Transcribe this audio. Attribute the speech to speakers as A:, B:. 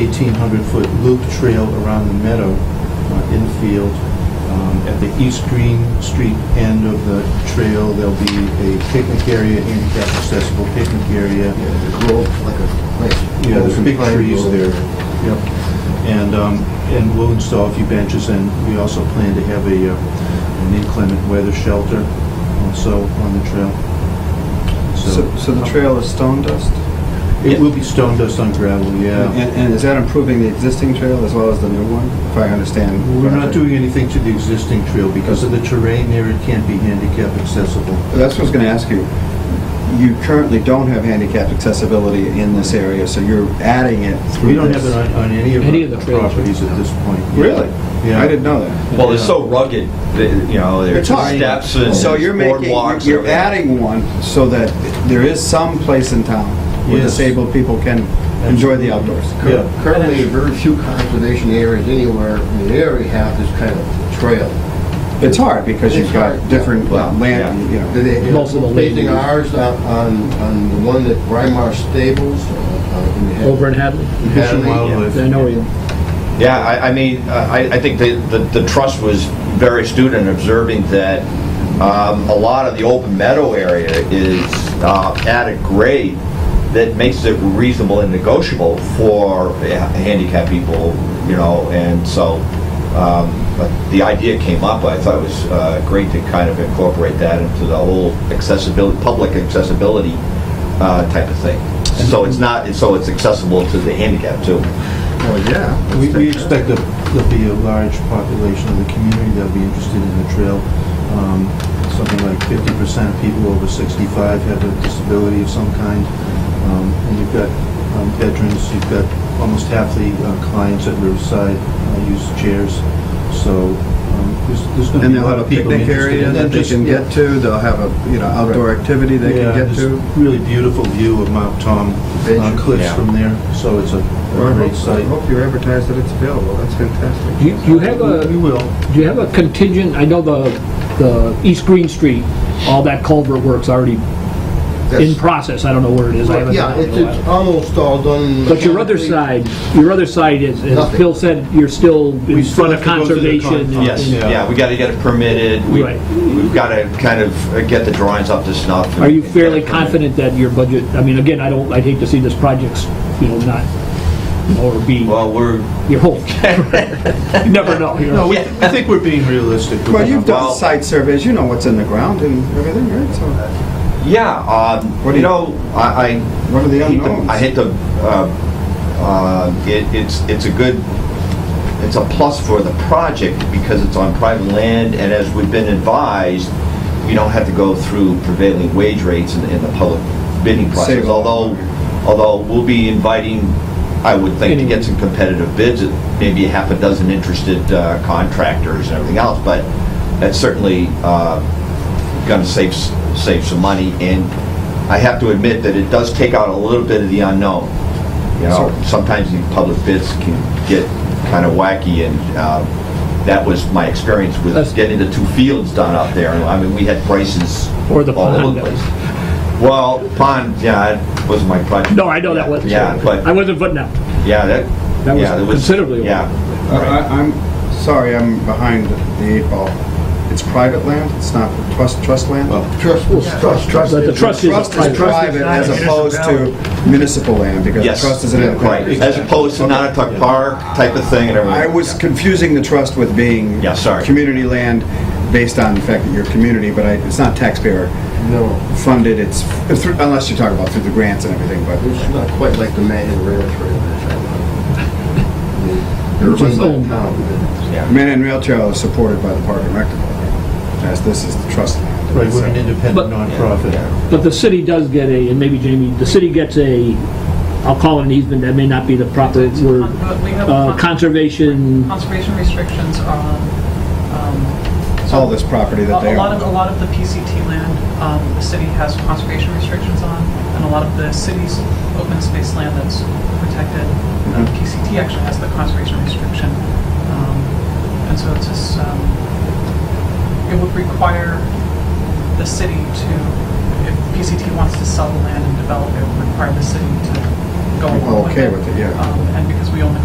A: 1,800-foot loop trail around the meadow uh, infield. Um, At the East Green Street end of the trail, there'll be a picnic area, handicap accessible picnic area.
B: Yeah, the grove, like a, like.
A: Yeah, there's big
B: Pine
A: trees
B: grove.
A: there. Yep. And, um, and we'll install a few benches, and we also plan to have a, uh, an inclement weather shelter also on the trail.
C: So, so the trail is stone dust?
A: It will be stone dust on gravel, yeah.
C: And, and is that improving the existing trail as well as the new one, if I understand?
A: We're not doing anything to the existing trail because of the terrain there, it can't be handicap accessible.
C: That's what I was gonna ask you. You currently don't have handicapped accessibility in this area, so you're adding it through
A: We don't have
C: this.
A: it on, on any of
D: Any of the
A: our
D: trails, right?
A: properties at this point. yeah.
C: Really?
A: Yeah.
C: I didn't know that.
E: Well, it's so rugged, that, you know, there's
C: It's hard.
E: steps and
C: So you're making,
E: boardwalks.
C: you're adding one so that there is some place in town where
A: Yes.
C: disabled people can enjoy the outdoors.
A: Yeah.
B: Currently, very few conservation areas anywhere in the area have this kind of trail.
C: It's hard because you've
B: It's
C: got
B: hard.
C: different uh,
E: Yeah.
C: land, you know.
B: Did they have
D: Most of the
B: basing
D: ladies.
B: ours on, on on the one at Rymar Stables? uh, uh, in Had-
D: Over in Hadley?
A: Fish and
B: Hadley?
A: wildlife.
D: I know you.
E: Yeah, I, I mean, uh, I, I think the, the, the trust was very astute in observing that um, a lot of the open meadow area is uh, at a grade that makes it reasonable and negotiable for ha- handicapped people, you know, and so, um, but the idea came up, I thought it was uh, great to kind of incorporate that into the whole accessibility, public accessibility uh, type of thing. So it's not, so it's accessible to the handicapped too.
B: Oh, yeah.
A: We, we expect that there'll be a large population of the community that'll be interested in the trail. Um, Something like fifty percent of people over sixty-five have a disability of some kind. Um, And you've got um, veterans, you've got almost half the uh, clients at Riverside uh, use chairs. So um, there's, there's gonna
C: And
A: be a
C: they'll
A: lot
C: have a
A: of people
C: picnic
A: interested.
C: area
A: in
C: that they can get to, they'll have a, you know, outdoor activity they can get to.
A: Really beautiful view of Mount Tom uh,
B: Vision.
A: cliffs
E: Yeah.
A: from there, so it's a a great
C: I
A: site.
C: hope you advertise that it's available, that's fantastic.
D: Do you- do you have a,
A: Uh, We
D: do
A: will.
D: you have a contingent, I know the, the East Green Street, all that culvert work's already in
B: That's-
D: process, I don't know where it is. I haven't
B: Yeah,
D: done it in
B: it's,
D: a while.
B: it's almost all done.
D: But your other side, your other side is, as
B: Nothing.
D: Phil said, you're still
A: We
D: in
A: still
D: front
A: have
D: of
A: to go through the con-
D: conservation. and-
E: Yes,
A: Yeah.
E: yeah, we gotta get it permitted, we,
D: Right.
E: we've gotta kind of uh, get the drawings up to snuff. and-
D: Are you
E: and get
D: fairly
E: it permitted.
D: confident that your budget, I mean, again, I don't, I'd hate to see this project's, you know, not, you know, or be
E: Well, we're,
D: your whole. You never know, you
A: No,
D: know.
A: we, I think we're being realistic. with
C: Well, you've
A: that.
C: done site surveys, you know what's in the ground and everything, right? So
E: yeah, um,
C: What do you-
E: you know, I, I.
C: What are the
E: I hate to-
C: unknowns?
E: I hate to, uh, uh, it, it's, it's a good, it's a plus for the project because it's on private land and as we've been advised, we don't have to go through prevailing wage rates in, in the public bidding process.
C: Save a lot.
E: Although, although we'll be inviting, I would think, to
D: Anyone.
E: get some competitive bids, uh, maybe a half a dozen interested uh, contractors and everything else, but that's certainly, uh, gonna save, save some money, and I have to admit that it does take out a little bit of the unknown. You know, sometimes these public bids can get kind of wacky, and uh, that was my experience
D: That's-
E: with getting the two fields done out there. I mean, we had prices
D: Or the
E: all over
D: pond.
E: the place. Well, pond, yeah, it was my project.
D: No, I know that wasn't.
E: Yeah,
D: I
E: but,
D: wasn't putting out.
E: yeah, that,
D: That was
E: yeah, it was...
D: considerably
E: Yeah.
C: I- I'm, sorry, I'm behind the eight ball. It's private land, it's not trust, trust land?
B: Trust, trust, trust.
D: But the trust is
C: Trust is private
D: private.
C: as opposed to municipal land, because
E: Yes.
C: trust is an
E: Right,
C: independent.
E: as opposed to Nantucket Park type of thing and everything.
C: I was confusing the trust with being.
E: Yeah, sorry.
C: Community land, based on the fact that you're a community, but I, it's not taxpayer
B: No,
C: funded, it's, through- unless you talk about through the grants and everything, but.
B: it's not quite like the Manhattan Rail Trail. that's all. They're
D: Which is
B: run by
D: owned.
B: town.
C: Manhattan Rail Trail is supported by the Park and Rec Department, as this is the trust land.
A: Right, we're an
D: But-
A: independent nonprofit.
D: But the city does get a, and maybe Jamie, the city gets a, I'll call it an easement, that may not be the proper word,
F: But we have
D: uh,
F: con-
D: conservation,
F: uh, conservation restrictions on, um,
C: All this property that they
F: A lot of, a
C: own.
F: lot of the PCT land, um, the city has conservation restrictions on, and a lot of the city's open space land that's protected, uh,
C: Mm-hmm.
F: PCT actually has the conservation restriction. Um, And so it's just, um, it would require the city to, if PCT wants to sell the land and develop it, it would require the city to go along with it.
C: Okay with it, yeah.
F: Um, And because we own the